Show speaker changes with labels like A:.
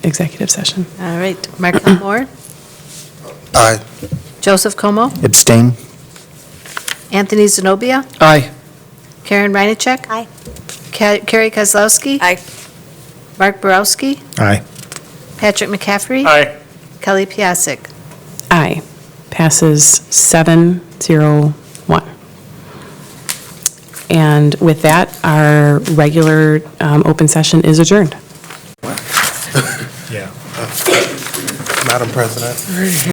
A: executive session.
B: All right, Mark Lamore,
C: Aye.
B: Joseph Como,
D: Abstain?
B: Anthony Zenobia,
D: Aye.
B: Karen Reinacek.
E: Aye.
B: Ca- Carrie Kozlowski.
E: Aye.
B: Mark Borowski,
D: Aye.
B: Patrick McCaffrey.
F: Aye.
B: Kelly Piasek.
A: Aye. Passes seven zero one. And with that, our regular um, open session is adjourned.
C: Madam President.